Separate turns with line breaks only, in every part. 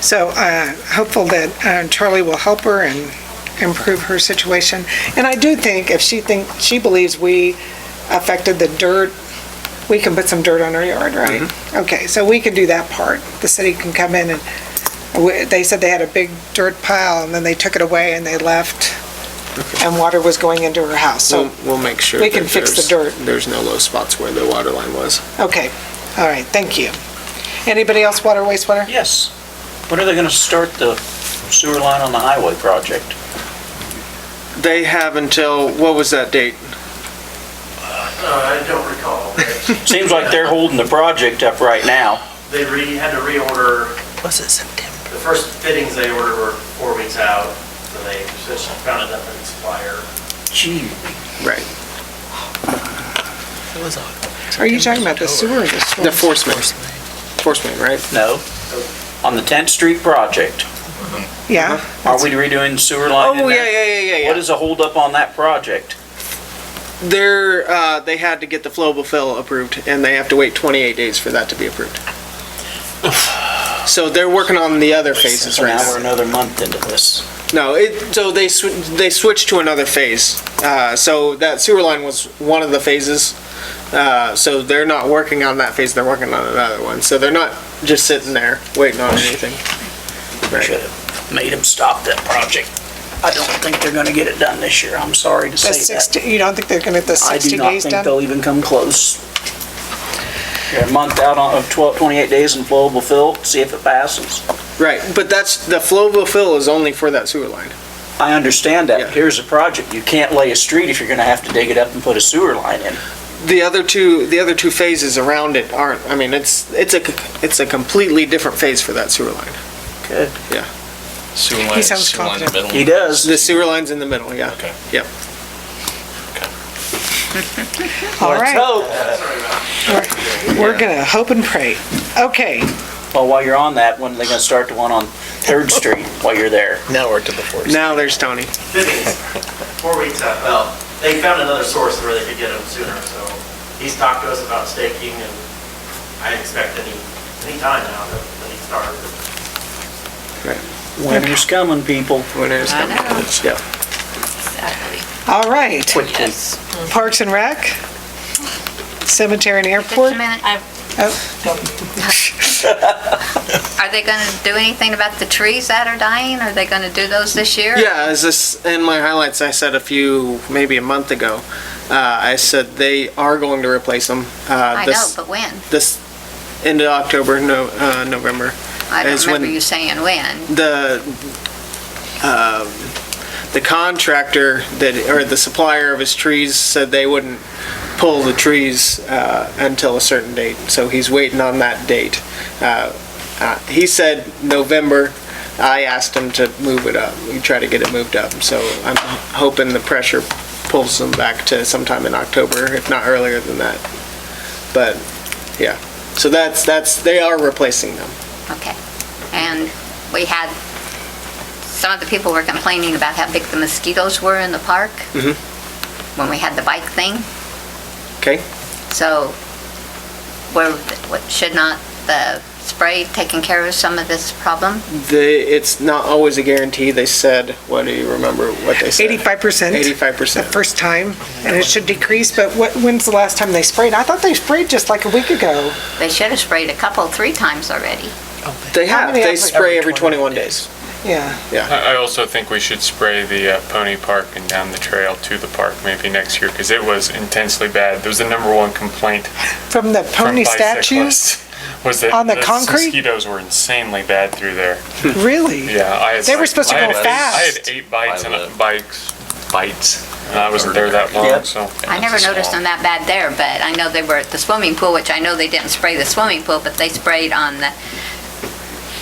So uh, hopeful that uh, Charlie will help her and improve her situation. And I do think if she think, she believes we affected the dirt, we can put some dirt on her yard, right?
Mm-hmm.
Okay, so we can do that part. The city can come in and, we- they said they had a big dirt pile and then they took it away and they left and water was going into her house. So,
We'll, we'll make sure.
we
that
can fix the
there's-
dirt.
There's no low spots where the water line was.
Mm.
okay, all right, thank you. Anybody else water, wastewater?
Yes. When are they gonna start the sewer line on the highway project?
They have until, what was that date?
Uh, I don't recall.
Seems like they're holding the project up right now.
They re, had to reorder. Was it September? The first fittings they ordered were four weeks out, so they just found another supplier.
Gee.
Right.
Are you talking about the sewer or the storm?
The force main. Force main, right?
No. On the 10th Street project.
Yeah,
Are we redoing the sewer line in
Oh, yeah,
there?
yeah, yeah, yeah, yeah.
What is the holdup on that project?
They're, uh, they had to get the flowable fill approved, and they have to wait 28 days for that to be approved. So they're working on the other phases
So
right
now we're
now.
another month into this.
No, it, so they, sw- they switched to another phase. Uh, so that sewer line was one of the phases. Uh, so they're not working on that phase, they're working on another one. So they're not just sitting there waiting on anything. Right.
Should've made them stop that project. I don't think they're gonna get it done this year. I'm sorry to
the
say that.
60, you don't think they're going to get the
I do
60
not
days
think
done?
they'll even come close. They're a month out on- of 12, 28 days in flowable fill, see if it passes.
Right, but that's, the flowable fill is only for that sewer line.
I understand that,
Yeah.
but here's the project. You can't lay a street if you're gonna have to dig it up and put a sewer line in.
The other two, the other two phases around it aren't, I mean, it's, it's a, it's a completely different phase for that sewer line.
Good.
Sewer line,
sounds
sewer line in the
confident.
middle.
He does.
The sewer line's in the middle, yeah.
Okay.
Yep.
All
Let's
Oh,
right,
hope.
we're going to hope and pray. Okay,
Well, while you're on that, when are they gonna start the one on Third Street while you're there?
Now we're to the force.
Now there's Tony.
Fittings, four weeks out. Well, they found another source where they could get them sooner, so he's talked to us about staking, and I expect any, any time now that that he started.
Winter's coming, people.
Winter's
I
coming.
know.
Yep.
Exactly.
all right.
Quickly.
Parks and Rec, Cemetery and Airport. Oh,
Just a minute, I- Are they going to do anything about the trees that are dying? Are they going to do those this year?
Yeah, as this, in my highlights, I said a few, maybe a month ago, uh, I said they are going to replace them. uh,
I know, but when?
This, end of October, no, uh, November.
I don't
As when-
remember you saying when.
the, um, the contractor that, or the supplier of his trees said they wouldn't pull the trees uh, until a certain date, so he's waiting on that date. Uh, uh, He said November, I asked him to move it up, we try to get it moved up, so I'm hoping the pressure pulls them back to sometime in October, if not earlier than that. But, yeah, so that's, that's, they are replacing them.
Okay. And we had, some of the people were complaining about how big the mosquitoes were in the park
Mhm.
when we had the bike thing.
Okay.
So, were, what- should not the spray taking care of some of this problem?
The, it's not always a guarantee. They said, what do you remember what they said?
85%
Eighty-five
the
percent.
first time, and it should decrease, but what, when's the last time they sprayed? I thought they sprayed just like a week ago.
They should have sprayed a couple, three times already.
They
How
have,
many
they
every-
spray every twenty-one days.
Yeah,
I I also think we should spray the uh, pony park and down the trail to the park maybe next year, because it was intensely bad. It was the number one complaint
from the
from
pony statues?
bicyclists, was that
On the concrete?
mosquitoes were insanely bad through there.
Really?
Yeah, I had.
They were
like-
supposed to
I
go
had- I
fast.
had eight bites and
Violet.
bikes, bites, and I wasn't there that long,
Yep.
so.
I never noticed them that bad there, but I know they were at the swimming pool, which I know they didn't spray the swimming pool, but they sprayed on the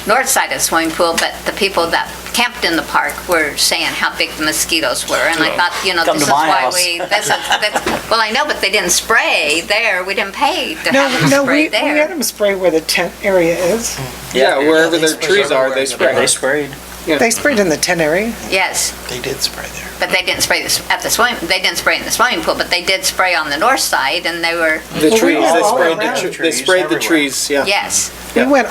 north side of the swimming pool, but the people that camped in the park were saying how big the mosquitoes were, and I thought, you know,
Come
this is
to my
why
house.
we, this is, that's- well, I know, but they didn't spray there, we didn't pay to
No,
have them
no, we,
spray
we had
there.
them spray where the tent area is.
Yeah, wherever their trees are, they
Yeah,
spray.
They sprayed.
They sprayed in the tent area.
Yes,
They did spray there.
but they didn't spray this, at the swimming, they didn't spray in the swimming pool, but they did spray on the north side, and they were,
The
we
trees,
have
they
all
sprayed
around.
the, tr- they
Trees
sprayed the
everywhere.
trees, yeah.
yes.
We
Yeah.
went